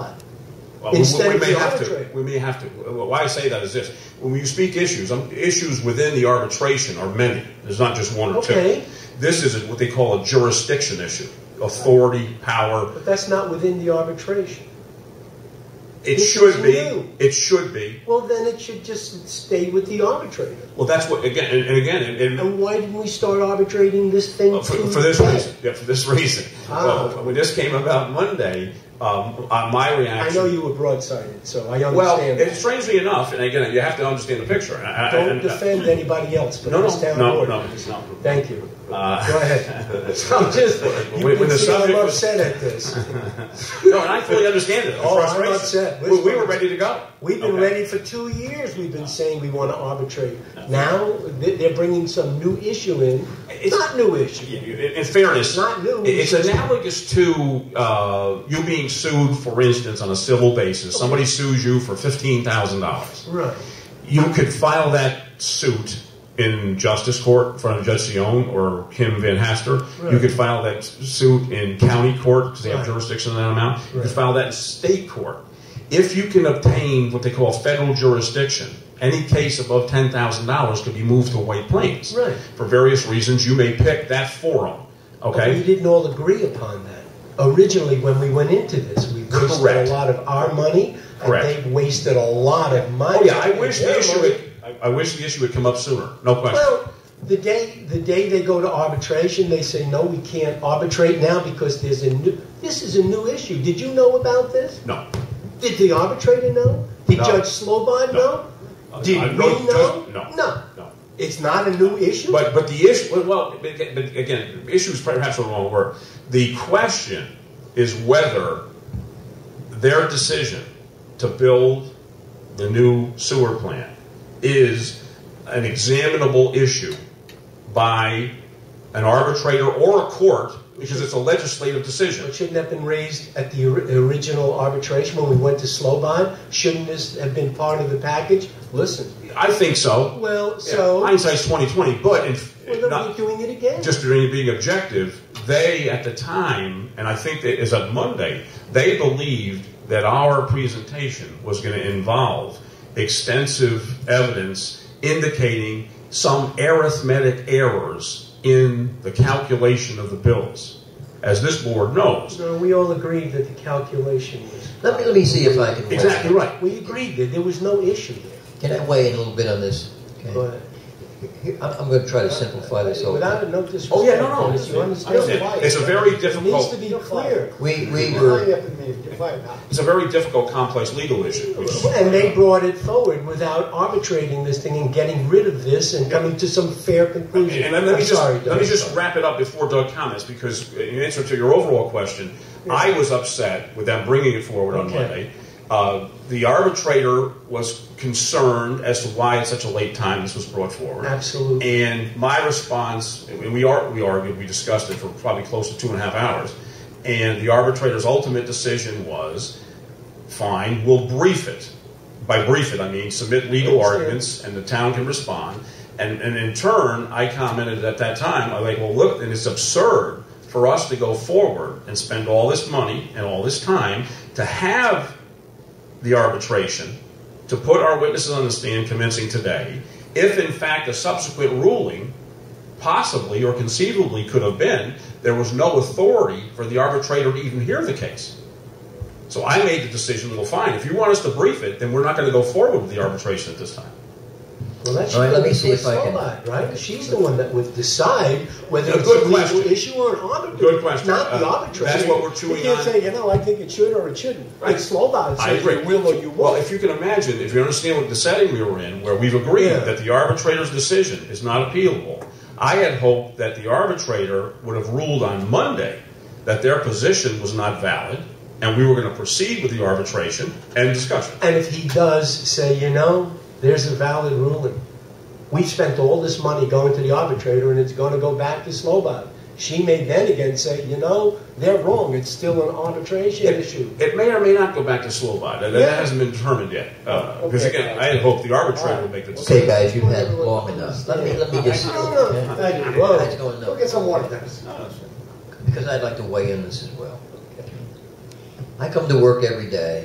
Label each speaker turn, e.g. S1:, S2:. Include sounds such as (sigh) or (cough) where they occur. S1: Well, we-
S2: Instead
S1: we,
S2: of
S1: may
S2: the
S1: have to.
S2: arbitrator.
S1: We may have to. Well, Why I say that is this: when you speak issues, um, issues within the arbitration are many. There's not just one or
S2: Okay.
S1: two. This is what they call a jurisdiction issue: authority, power.
S2: But that's not within the arbitration.
S1: It
S2: This
S1: should
S2: is
S1: be.
S2: new.
S1: It should be.
S2: Well, then it should just stay with the arbitrator.
S1: Well, that's what again and, and again and, and
S2: And why didn't we start arbitrating this thing
S1: Well, for,
S2: to-
S1: for this reason. Yeah, for this reason.
S2: Ah.
S1: Well, when this came about Monday, um, uh, my
S2: I
S1: reaction.
S2: know you were broadsided, so I understand.
S1: well,
S2: that.
S1: and strangely enough, and again, you have to understand the picture. and I, I-
S2: Don't
S1: and- uh,
S2: defend anybody else but
S1: No, no,
S2: this town
S1: no,
S2: board.
S1: no, it's not.
S2: Thank you.
S1: Uh,
S2: Go
S1: (laughs)
S2: ahead. So I'm just, you
S1: When-
S2: can
S1: when the
S2: see
S1: subject
S2: I'm
S1: was-
S2: upset at this.
S1: no, and I fully understand it. the
S2: Oh, I'm
S1: frustration.
S2: upset.
S1: We, we were ready to go.
S2: We've been
S1: Okay.
S2: ready for two years. We've been saying we want to arbitrate. Now they- they're bringing some new issue in. It's
S1: It's-
S2: not new issue.
S1: In in fairness,
S2: Not new.
S1: it's analogous to uh, you being sued, for instance, on a civil basis. Somebody sues you for fifteen thousand dollars.
S2: Right.
S1: You could file that suit in justice court in front of Judge Sion or Kim Van Haster. You
S2: Right.
S1: could file that suit in county court because they have
S2: Right.
S1: jurisdiction in that amount. You
S2: Right.
S1: could file that in state court. If you can obtain what they call federal jurisdiction, any case above ten thousand dollars could be moved to White Plains.
S2: Right.
S1: For various reasons, you may pick that forum.
S2: But
S1: Okay.
S2: We didn't all agree upon that. Originally, when we went into this, we wasted
S1: Correct.
S2: a lot of our money, and
S1: Correct.
S2: they wasted a lot of money.
S1: Oh yeah, I wish the
S2: Yeah,
S1: issue.
S2: money.
S1: Had, I, I wish the issue would come up sooner. No question.
S2: Well, the day the day they go to arbitration, they say no, we can't arbitrate now because there's a new. This is a new issue. Did you know about this?
S1: no.
S2: Did the arbitrator know? Did
S1: No.
S2: Judge Slobod
S1: No.
S2: know? Did
S1: I-
S2: we
S1: no,
S2: know?
S1: just- no.
S2: no.
S1: No.
S2: It's not a new issue.
S1: But but the issue, well, well, but but again, issue is perhaps the wrong word. The question is whether their decision to build the new sewer plant is an examinable issue by an arbitrator or a court because it's a legislative decision.
S2: It shouldn't have been raised at the ori- original arbitration when we went to Slobod. Shouldn't this have been part of the package? Listen.
S1: I think so.
S2: Well, so
S1: Yeah, hindsight's twenty twenty, but in,
S2: we're going to
S1: not-
S2: be doing it again.
S1: just during being objective, they at the time, and I think it is on Monday, they believed that our presentation was going to involve extensive evidence indicating some arithmetic errors in the calculation of the bills. As this board knows,
S2: no, we all agreed that the calculation was.
S3: Let me, let me see if I can. weigh in.
S1: Exactly right.
S2: We agreed that there was no issue there.
S3: Can I weigh in a little bit on this? Okay.
S2: But
S3: I'm, I'm going to try to simplify this whole
S2: without
S3: thing.
S2: a no disrespect,
S1: Oh, yeah, no, no,
S2: Dennis, you
S1: I
S2: understand
S1: understand.
S2: why
S1: It's a very
S2: it needs
S1: difficult-
S2: to be clear.
S3: We, we
S4: Hurry
S3: were,
S4: up and meet, define that.
S1: it's a very difficult, complex legal issue. which-
S2: And they brought it forward without arbitrating this thing and getting rid of this and coming to some fair conclusion.
S1: And let me
S2: I'm
S1: just
S2: sorry,
S1: let me
S2: Doug.
S1: just wrap it up before Doug comments because in answer to your overall question, I was upset with them bringing it forward on
S2: Okay.
S1: Monday. Uh, the arbitrator was concerned as to why at such a late time this was brought forward.
S2: Absolutely.
S1: And my response, and we are we argued, we discussed it for probably close to two and a half hours, and the arbitrator's ultimate decision was, fine, we'll brief it. By brief it, I mean submit legal
S2: Understand.
S1: arguments and the town can respond. And, and in turn, I commented at that time, I'm like, well, look, and it's absurd for us to go forward and spend all this money and all this time to have the arbitration, to put our witnesses on the stand commencing today, if in fact a subsequent ruling possibly or conceivably could have been, there was no authority for the arbitrator to even hear the case. So I made the decision, well, fine, if you want us to brief it, then we're not going to go forward with the arbitration at this time.
S2: Well, that's
S3: All right, let me see if I can-
S2: Right? She's the one that would decide whether
S1: Good
S2: it's a legal
S1: question.
S2: issue or an arbitrator.
S1: Good question.
S2: Not the
S1: Uh,
S2: arbitrator.
S1: that's what we're chewing
S2: You can't
S1: on.
S2: say, you know, I think it should or it shouldn't.
S1: Right.
S2: It's Slobod.
S1: I
S2: says
S1: agree.
S2: You will or you won't.
S1: Well, if you can imagine, if you understand what the setting we were in, where we've agreed
S2: Yeah.
S1: that the arbitrator's decision is not appealable, I had hoped that the arbitrator would have ruled on Monday that their position was not valid, and we were going to proceed with the arbitration and discussion.
S2: And if he does say, you know, there's a valid ruling. We spent all this money going to the arbitrator and it's going to go back to Slobod. She may then again say, you know, they're wrong. It's still an arbitration issue.
S1: It may or may not go back to Slovak. That, that
S2: Yeah.
S1: hasn't been determined yet. Uh, Because
S4: Okay.
S1: again, I had hoped the arbitrator would make the decision.
S3: okay, guys, you've had long enough. Let me, let me just.
S2: No, no, no.
S3: okay?
S2: Thank you.
S3: I
S2: Whoa.
S3: just don't
S4: Go
S3: know,
S4: get some water, Dennis.
S3: because I'd like to weigh in this as well. I come to work every day